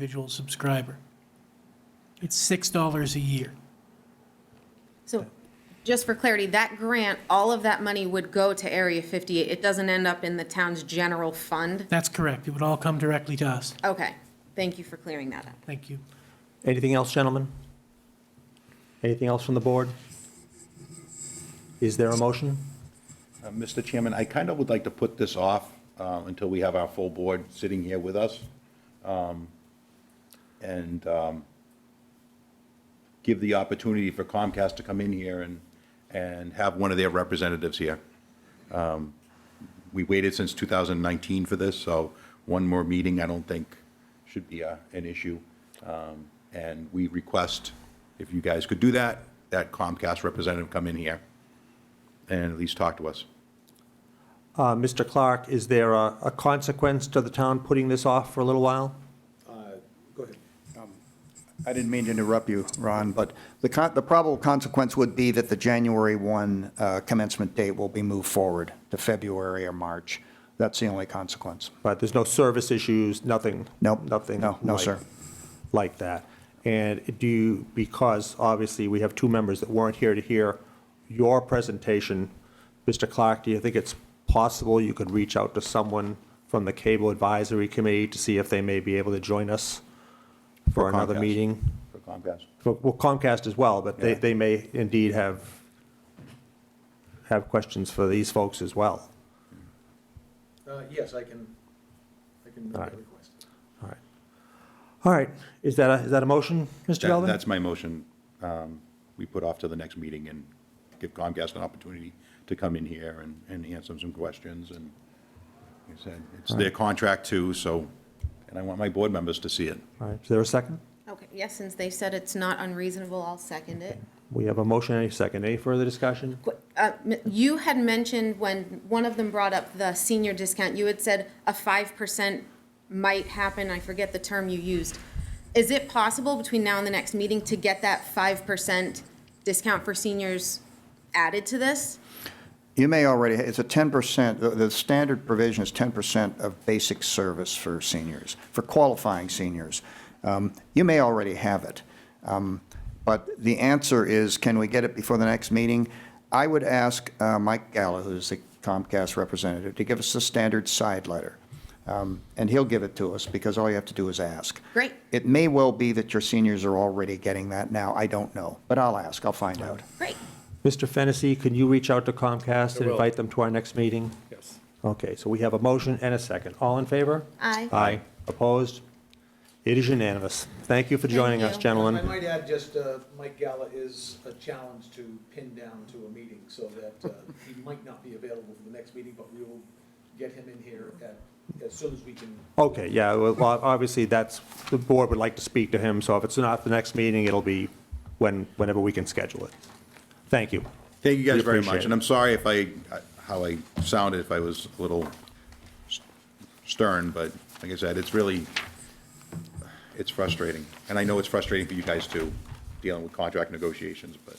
individual subscriber. It's $6 a year. So just for clarity, that grant, all of that money would go to Area 58. It doesn't end up in the town's general fund? That's correct. It would all come directly to us. Okay, thank you for clearing that up. Thank you. Anything else, gentlemen? Anything else from the board? Is there a motion? Uh, Mr. Chairman, I kind of would like to put this off uh, until we have our full board sitting here with us. um, And um, give the opportunity for Comcast to come in here and, and have one of their representatives here. Um, We waited since 2019 for this, so one more meeting, I don't think, should be a- an issue. Um, And we request, if you guys could do that, that Comcast representative come in here and at least talk to us. Uh, Mr. Clark, is there a a consequence to the town putting this off for a little while? Go ahead. I didn't mean to interrupt you, Ron, but the con, the probable consequence would be that the January 1 uh, commencement date will be moved forward to February or March. That's the only consequence. Right, there's no service issues, nothing? Nope. Nothing? No, no, like- sir. Like that. And do you, because obviously we have two members that weren't here to hear your presentation, Mr. Clark, do you think it's possible you could reach out to someone from the Cable Advisory Committee to see if they may be able to join us for another Comcast. meeting? For Comcast. Well, well, Comcast as well, but they, Yeah. they may indeed have, have questions for these folks as well. Uh, Yes, I can, I can make All right. that request. All right. All right, is that, a- is that a motion, Mr. That- Galvin? That's my motion. Um, We put off to the next meeting and give Comcast an opportunity to come in here and, and answer some questions and, like I said, it's their contract too, so, and I want my board members to see it. All right, is there a second? Okay, yes, since they said it's not unreasonable, I'll second it. We have a motion and a second. Any further discussion? Qu- uh, m- You had mentioned when one of them brought up the senior discount, you had said a 5% might happen, I forget the term you used. Is it possible between now and the next meeting to get that 5% discount for seniors added to this? You may already, it's a 10%, the, the standard provision is 10% of basic service for seniors, for qualifying seniors. Um, You may already have it. Um, But the answer is, can we get it before the next meeting? I would ask uh, Mike Gallo, who's the Comcast representative, to give us the standard side letter. Um, And he'll give it to us, because all you have to do is ask. Great. It may well be that your seniors are already getting that now, I don't know, but I'll ask, I'll find out. Great. Mr. Fennessy, can you reach out to Comcast and will. invite them to our next meeting? Yes. Okay, so we have a motion and a second. All in favor? Aye. Aye. Opposed? It is unanimous. Thank you for Thank joining us, you. gentlemen. I might add just, uh, Mike Gala is a challenge to pin down to a meeting, so that uh, he might not be available for the next meeting, but we will get him in here at, as soon as we can. Okay, yeah, well, well, obviously, that's, the board would like to speak to him, so if it's not the next meeting, it'll be when, whenever we can schedule it. Thank you. Thank you We guys very appreciate much, it. and I'm sorry if I, how I sounded, if I was a little s- stern, but like I said, it's really, it's frustrating. And I know it's frustrating for you guys too, dealing with contract negotiations, but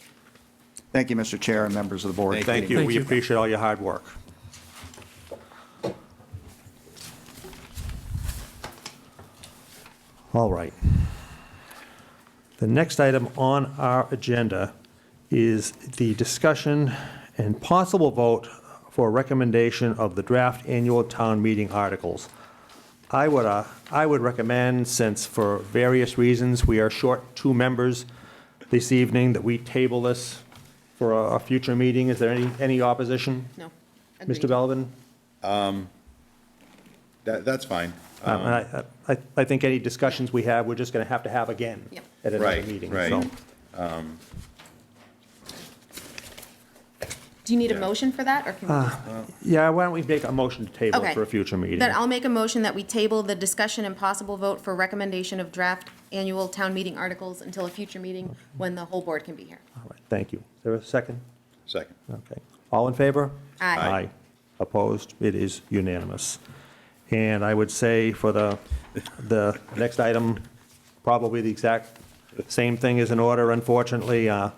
Thank you, Mr. Chair and members of the board. Thank you, Thank we you. appreciate all your hard work. All right. The next item on our agenda is the discussion and possible vote for recommendation of the draft annual town meeting articles. I would, uh, I would recommend, since for various reasons, we are short two members this evening, that we table this for a, a future meeting. Is there any, any opposition? No. Mr. Agreed. Belvin? Uh, that, that's fine. Um, and I, I, I think any discussions we have, we're just gonna have to have again Yep. Mm. at another Right, meeting, right. so. Do you need a Yeah. motion for that, or can we just- Yeah, why don't we make a motion to table it Okay. for a future meeting? Then I'll make a motion that we table the discussion and possible vote for recommendation of draft annual town meeting articles until a future meeting when the whole board can be here. All right, Thank you. Is there a second? Second. Okay. All in favor? Aye. Aye. Opposed? It is unanimous. And I would say for the, the next item, probably the exact same thing is in order, unfortunately. Uh,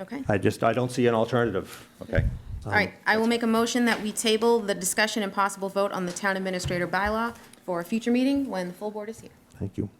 Okay? I just, I don't see an alternative. Okay. All right, I will make a motion that we table the discussion and possible vote on the town administrator bylaw for a future meeting when the full board is here. Thank you.